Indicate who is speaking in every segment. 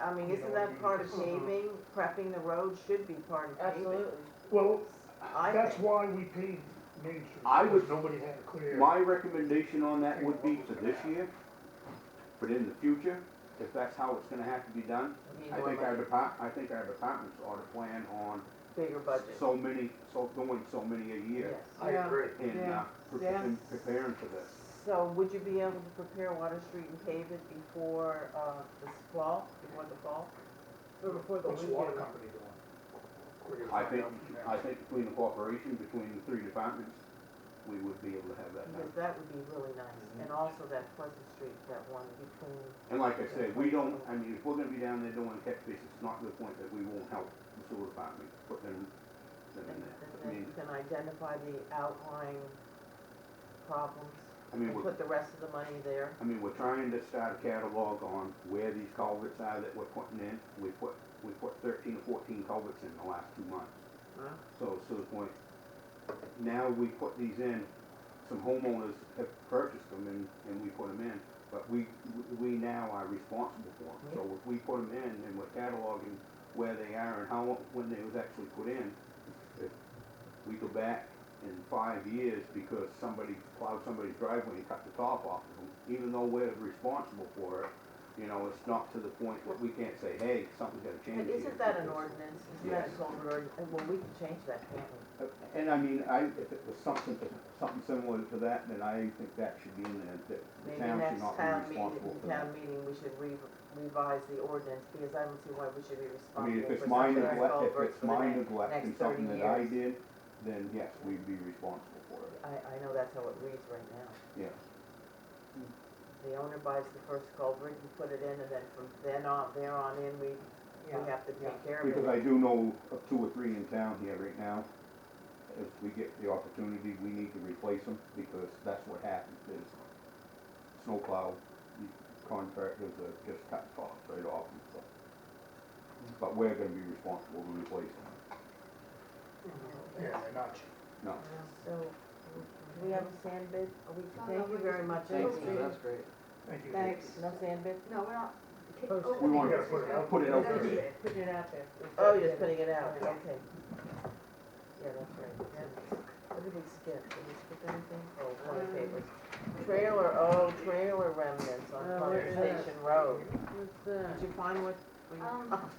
Speaker 1: I mean, isn't that part of paving, prepping the road should be part of paving?
Speaker 2: Uh-huh. Absolutely.
Speaker 3: Well,
Speaker 1: I
Speaker 3: that's
Speaker 1: think.
Speaker 3: why we paved Main Street.
Speaker 4: I would-
Speaker 3: because Nobody had a clear.
Speaker 4: My recommendation on that would be for this year, but in the future, if that's how it's gonna have to be done,
Speaker 1: Need
Speaker 4: I
Speaker 1: more
Speaker 4: think our
Speaker 1: money,
Speaker 4: depart, I think our departments ought to plan on
Speaker 1: Bigger budget,
Speaker 4: so many, so, doing so many a year.
Speaker 1: yes.
Speaker 5: I agree.
Speaker 4: And, uh,
Speaker 2: Yeah.
Speaker 4: pre-
Speaker 2: Yeah.
Speaker 4: and preparing for this.
Speaker 1: So would you be able to prepare Water Street and pave it before, uh, this fall, before the fall?
Speaker 2: Or before the
Speaker 5: What's the water
Speaker 2: weekend.
Speaker 5: company doing? We're gonna
Speaker 4: I
Speaker 5: find
Speaker 4: think,
Speaker 5: out from them.
Speaker 4: I think between the cooperation between the three departments, we would be able to have that done.
Speaker 1: Because that would be really nice, and also that Pleasant Street, that one between,
Speaker 4: And like I said, we don't, I mean, if we're gonna be down there doing catch bases, it's not to the point that we won't help the sewer department put them, them in
Speaker 1: and
Speaker 4: there.
Speaker 1: and
Speaker 4: I
Speaker 1: then you
Speaker 4: mean,
Speaker 1: can identify the outlying problems,
Speaker 4: I
Speaker 1: and
Speaker 4: mean, we're,
Speaker 1: put the rest of the money there.
Speaker 4: I mean, we're trying to start a catalog on where these culverts are that we're putting in. We put, we put thirteen or fourteen culverts in the last two months.
Speaker 1: Wow.
Speaker 4: So it's to the point, now we put these in, some homeowners have purchased them and, and we put them in. But we, we now are responsible for them. So if we put them in and we're cataloging where they are and how, when they was actually put in, if we go back in five years because somebody plowed somebody's driveway and cut the top off of them, even though we're responsible for it, you know, it's not to the point that we can't say, hey, something's gotta change
Speaker 1: But
Speaker 4: here.
Speaker 1: isn't that an
Speaker 4: because-
Speaker 1: ordinance, isn't that a
Speaker 4: Yes.
Speaker 1: culvert ordinance, well, we can change that, can't we?
Speaker 4: And I mean, I, if it was something, something similar to that, then I think that should be in there, that the
Speaker 1: Maybe
Speaker 4: town should
Speaker 1: next
Speaker 4: not
Speaker 1: town
Speaker 4: be
Speaker 1: meeting,
Speaker 4: responsible for that.
Speaker 1: town meeting, we should re- revise the ordinance, because I don't see why we should be
Speaker 4: I mean,
Speaker 1: responsible
Speaker 4: if
Speaker 1: for something like culverts
Speaker 4: it's my neglect, if it's
Speaker 1: for the
Speaker 4: my
Speaker 1: next,
Speaker 4: neglect
Speaker 1: next
Speaker 4: and
Speaker 1: thirty
Speaker 4: something that I
Speaker 1: years.
Speaker 4: did, then yes, we'd be responsible for it,
Speaker 1: I, I know that's how it reads right now.
Speaker 4: yes.
Speaker 1: The owner buys the first culvert, you put it in, and then from then on, there on in, we, we
Speaker 2: Yeah.
Speaker 1: have to take care of it.
Speaker 4: Because I do know of two or three in town here right now, if we get the opportunity, we need to replace them, because that's what happens, is snowplow contractors are just cut tops right off and stuff. But we're gonna be responsible to replace them,
Speaker 5: Yeah, they're not cheap.
Speaker 4: no.
Speaker 1: So, do we have a sand bid? Are we,
Speaker 6: No, no,
Speaker 1: thank you
Speaker 6: we
Speaker 1: very
Speaker 6: just-
Speaker 1: much.
Speaker 6: Thanks,
Speaker 1: Thank
Speaker 6: no,
Speaker 1: you.
Speaker 6: that's
Speaker 5: great. Thank you.
Speaker 2: Thanks.
Speaker 1: No sand bid?
Speaker 6: No, we're not.
Speaker 2: First,
Speaker 6: Oh,
Speaker 4: We want
Speaker 6: okay.
Speaker 4: to put it out for
Speaker 6: That's
Speaker 4: bid.
Speaker 6: it.
Speaker 2: Putting it out there.
Speaker 1: Oh, you're just putting it out, okay. Yeah, that's right. What did we skip? Did we skip anything? Oh, one of the papers. Trailer, oh, trailer remnants on
Speaker 2: Oh,
Speaker 1: Plum
Speaker 2: where's
Speaker 1: Station
Speaker 2: that?
Speaker 1: Road.
Speaker 2: What's that?
Speaker 1: Did you find what? we-
Speaker 6: Um,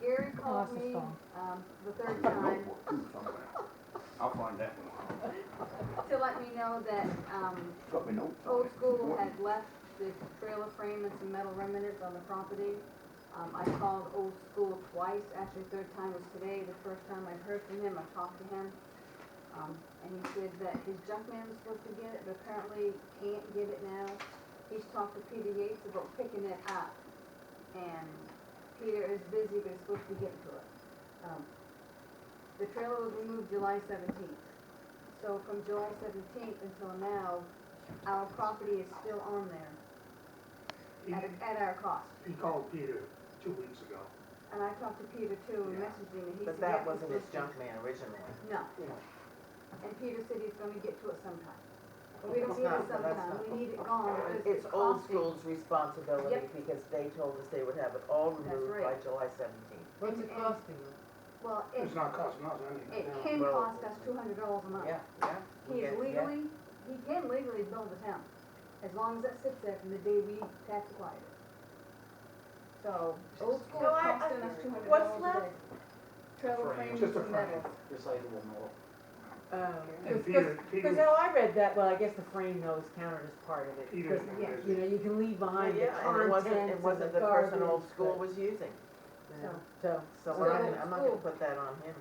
Speaker 6: Gary called me, um, the third time
Speaker 4: Notebook, too, somewhere. I'll find that one.
Speaker 6: to let me know that, um,
Speaker 4: It's Got my notes on it.
Speaker 6: Old
Speaker 4: It's
Speaker 6: School
Speaker 4: important.
Speaker 6: had left the trailer frame and some metal remnants on the property. Um, I called Old School twice, actually third time was today, the first time I heard from him, I talked to him. Um, and he said that his junk man was supposed to get it, but apparently can't get it now. He's talked to Peter Yates about picking it up. And Peter is busy, but he's supposed to get to it. Um, The trailer was removed July seventeenth. So from July seventeenth until now, our property is still on there
Speaker 3: He,
Speaker 6: at, at our cost.
Speaker 3: he called Peter two weeks ago.
Speaker 6: And I talked to Peter too and
Speaker 3: Yeah.
Speaker 6: messaged him and he said.
Speaker 1: But that
Speaker 6: "Yeah,
Speaker 1: wasn't his
Speaker 6: it's-
Speaker 1: junk man originally.
Speaker 6: No.
Speaker 1: No.
Speaker 6: And Peter said he's gonna get to it sometime. But we don't need
Speaker 1: No,
Speaker 6: it
Speaker 1: that's
Speaker 6: sometime,
Speaker 1: not-
Speaker 6: we need it gone because
Speaker 1: It's
Speaker 6: it's
Speaker 1: old
Speaker 6: costing.
Speaker 1: school's responsibility
Speaker 6: Yep.
Speaker 1: because they told us they would have it all
Speaker 6: That's
Speaker 1: removed by
Speaker 6: right.
Speaker 1: July seventeenth.
Speaker 2: What's it costing us?
Speaker 6: Well, it,
Speaker 5: It's not costing us anything.
Speaker 6: it can
Speaker 1: Well-
Speaker 6: cost us two hundred dollars a month.
Speaker 1: Yeah, yeah.
Speaker 6: He is
Speaker 1: Yeah, yeah.
Speaker 6: legally, he can legally build the town, as long as it sits there from the day we tax acquired it. So, old school
Speaker 1: So I-
Speaker 6: costing
Speaker 1: I-
Speaker 6: us two hundred
Speaker 1: what's
Speaker 6: dollars a day.
Speaker 1: left?
Speaker 5: Frame.
Speaker 6: Trailer frames
Speaker 5: Just a
Speaker 6: and
Speaker 5: frame.
Speaker 6: metals.
Speaker 7: recyclable metal.
Speaker 5: And
Speaker 2: Um, Because,
Speaker 5: Peter, Peter,
Speaker 2: because how I read that, well, I guess the frame though is counted as part of it,
Speaker 3: Peter's
Speaker 2: because,
Speaker 3: been
Speaker 6: yeah,
Speaker 2: you
Speaker 3: busy.
Speaker 2: know, you can leave behind the
Speaker 1: Oh, Yeah, and it wasn't,
Speaker 2: contents
Speaker 1: it
Speaker 2: and
Speaker 1: wasn't the
Speaker 2: garbage,
Speaker 1: person old school
Speaker 2: but-
Speaker 1: was using.
Speaker 2: yeah. So,
Speaker 1: So
Speaker 6: So
Speaker 1: I'm not
Speaker 6: old
Speaker 1: gonna, I'm not gonna
Speaker 6: school.
Speaker 1: put that on him.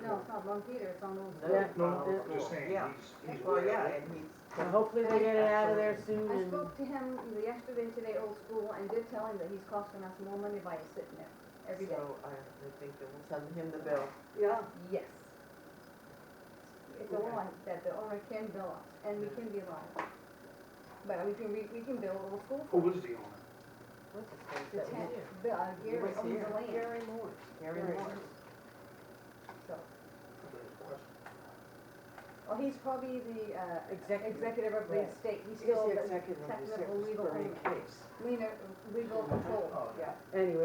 Speaker 6: No, it's not on Peter, it's on old
Speaker 1: No.
Speaker 6: school.
Speaker 3: No,
Speaker 1: Oh,
Speaker 3: no, I'm just saying,
Speaker 1: yeah.
Speaker 3: he's, he's
Speaker 1: Well,
Speaker 3: aware.
Speaker 1: yeah, and he's.
Speaker 2: and hopefully they get it out of there soon
Speaker 6: I
Speaker 2: and,
Speaker 6: spoke to him either yesterday, today, old school, and did tell him that he's costing us more money by sitting there every day.
Speaker 1: So I I think that we'll send him the bill.
Speaker 6: Yeah. Yes. It's a lot that the owner can bill us, and we can be liable. But we can, we, we can bill old school
Speaker 5: Who
Speaker 6: for
Speaker 5: was the owner?
Speaker 1: What's his name?
Speaker 6: the
Speaker 1: That
Speaker 6: ten,
Speaker 1: was you.
Speaker 6: the, uh, Gary
Speaker 1: was
Speaker 6: owns
Speaker 1: here.
Speaker 6: the land,
Speaker 2: Gary Moore.
Speaker 1: Gary
Speaker 2: Gary.
Speaker 1: Moore.
Speaker 6: so,
Speaker 5: Somebody's question.
Speaker 6: well, he's probably the, uh,
Speaker 2: Executive.
Speaker 6: executive of the
Speaker 2: Right.
Speaker 6: estate, he's
Speaker 2: He's
Speaker 6: still
Speaker 2: the
Speaker 6: the
Speaker 2: executive of the
Speaker 6: technical legal
Speaker 2: Sixth Grade
Speaker 6: owner,
Speaker 2: case.
Speaker 6: leaner, legal control,
Speaker 5: Oh,
Speaker 6: yeah.
Speaker 2: Anyway,